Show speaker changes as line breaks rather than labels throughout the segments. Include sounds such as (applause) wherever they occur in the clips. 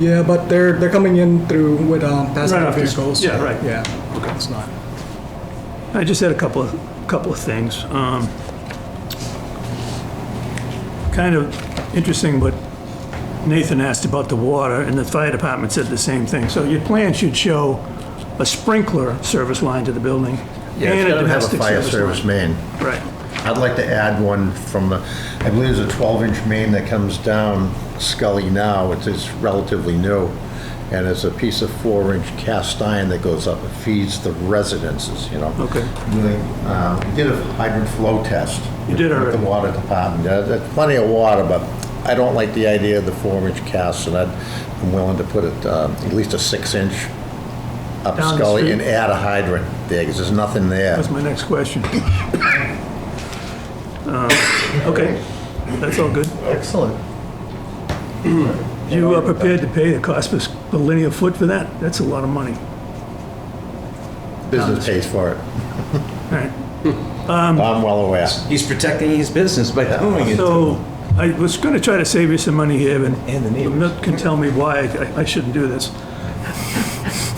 Yeah, but they're, they're coming in through with um, passenger
Right after-
vehicles.
yeah, right.
Yeah, it's not.
I just had a couple of, couple of things. Um, Kind of interesting what Nathan asked about the water, and the fire department said the same thing. So your plan should show a sprinkler service line to the building
Yeah,
and
it's
a
gotta have a
domestic
fire
service line.
service main.
Right,
I'd like to add one from the, I believe it's a 12-inch main that comes down Scully now. It's- It's relatively new. And it's a piece of four-inch cast iron that goes up and feeds the residences, you know?
Okay.
Doing, uh, We did a hydrant flow test.
You did
with
already.
The water department. Uh, There's plenty of water, but I don't like the idea of the four-inch cast, and I'd- I'm willing to put it, uh, at least a six-inch
Down
up
the
Scully
street.
and add a hydrant there, because there's nothing there.
that's my next question. Um, Okay, that's all good.
Excellent.
You are prepared to pay the cost per s- per linear foot for that? That's a lot of money.
Business pays for it.
All right.
I'm well aware.
He's protecting his business by doing it.
So I was going to try to save you some money here, and
And the neighbors.
Milt can tell me why I- I shouldn't do this.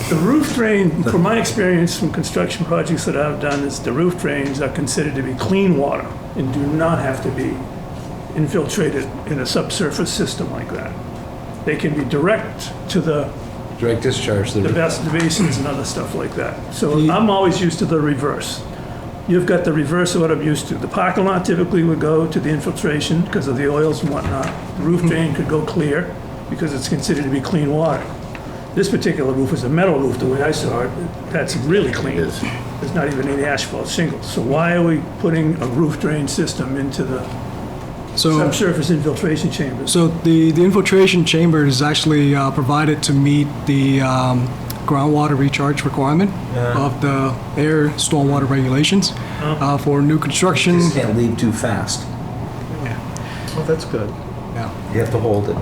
The roof drain, from my experience from construction projects that I've done, is the roof drains are considered to be clean water and do not have to be infiltrated in a subsurface system like that. They can be direct to the
Direct discharge.
the best basins and other stuff like that. So I'm always used to the reverse. You've got the reverse of what I'm used to. The parking lot typically would go to the infiltration because of the oils and whatnot. The roof drain could go clear because it's considered to be clean water. This particular roof is a metal roof, the way I saw it, that's really clean.
It is.
There's not even any asphalt shingles. So why are we putting a roof drain system into the
So,
subsurface infiltration chambers?
so the, the infiltration chamber is actually uh, provided to meet the um, groundwater recharge requirement of the air stormwater regulations
Uh-huh.
uh, for new construction.
You can't leave too fast.
Well, that's good.
Yeah.
You have to hold it.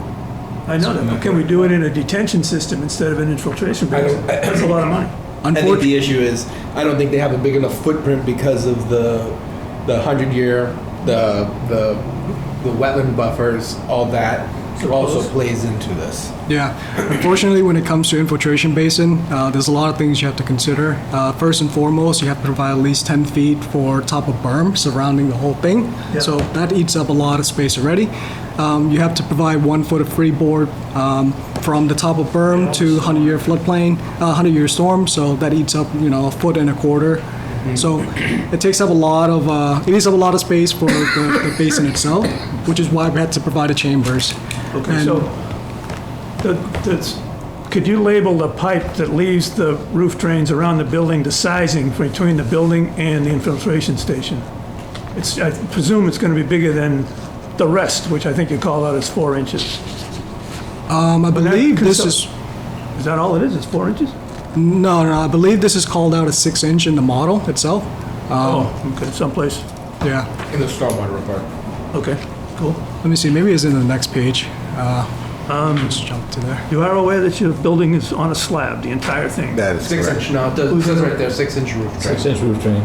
I know that, but can we do it in a detention system instead of an infiltration basin? That's a lot of money.
I think
Unfortunately,
the issue is I don't think they have a big enough footprint because of the the hundred year the the the wetland buffers all that also
close.
plays into this.
yeah. Unfortunately, when it comes to infiltration basin, uh, there's a lot of things you have to consider. Uh, First and foremost, you have to provide at least 10 feet for top of berm surrounding the whole thing.
Yeah.
So that eats up a lot of space already. Um, You have to provide one foot of freeboard um, from the top of berm to 100-year floodplain, 100-year storm, so that eats up, you know, a foot and a quarter.
Mm-hmm.
So it takes up a lot of, uh, it eats up a lot of space for the the basin itself, which is why we had to provide the chambers.
Okay,
And-
so, the- that's, could you label the pipe that leaves the roof drains around the building, the sizing between the building and the infiltration station? It's, I presume it's gonna be bigger than the rest, which I think you call out as four inches.
Um, I
that
believe this
consi-
is,
Is that all it is, is four inches?
no, no, I believe this is called out as six inch in the model itself.
Oh, okay, someplace,
Yeah,
In the stormwater report.
okay, cool.
let me see, maybe it's in the next page. Uh, Just jump to there.
You are aware that your building is on a slab, the entire thing?
That is
Six
correct.
inch no, it does, it says right there, six inch roof drain.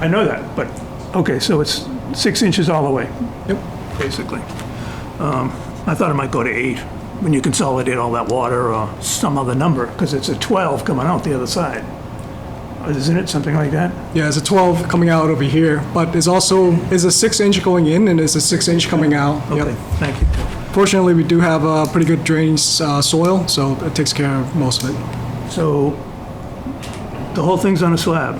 I know that, but, okay, so it's six inches all the way? Yep. Basically. Um, I thought it might go to eight, when you consolidate all that water or some other number, because it's a 12 coming out the other side. Isn't it something like that?
Yeah, it's a 12 coming out over here, but it's also, it's a six inch going in and it's a six inch coming out. Yep.
Okay, thank you.
Fortunately, we do have a pretty good drainage uh, soil, so it takes care of most of it.
So, the whole thing's on a slab,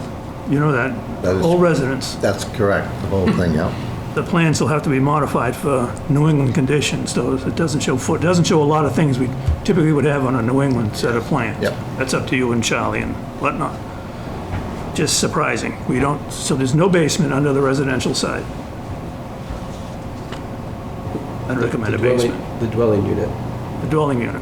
you know that?
That is-
Whole residence.
That's correct, the whole thing, (laughs) yeah.
The plans will have to be modified for New England conditions, though it doesn't show, foot- it doesn't show a lot of things we typically would have on a New England set of plans.
Yep.
That's up to you and Charlie and whatnot. Just surprising. We don't, so there's no basement under the residential side. I'd recommend a basement,
The dwelling unit.
a dwelling unit.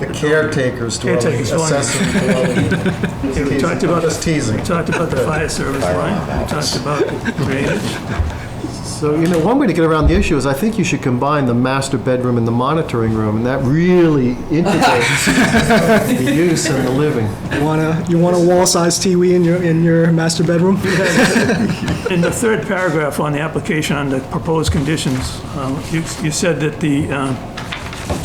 The caretaker's
Caretaker's dwelling. (laughs) Yeah, We talked about,
Just teasing.
we talked
(laughs)
about the fire service line, we talked about the drainage.
So, you know, one way to get around the issue is I think you should combine the master bedroom and the monitoring room, and
(laughs)
that really integrates the use and the living.
You want a, you want a wall-sized TV in your, in your master bedroom?
In the third paragraph on the application under proposed conditions, uh, you you um, said that the uh,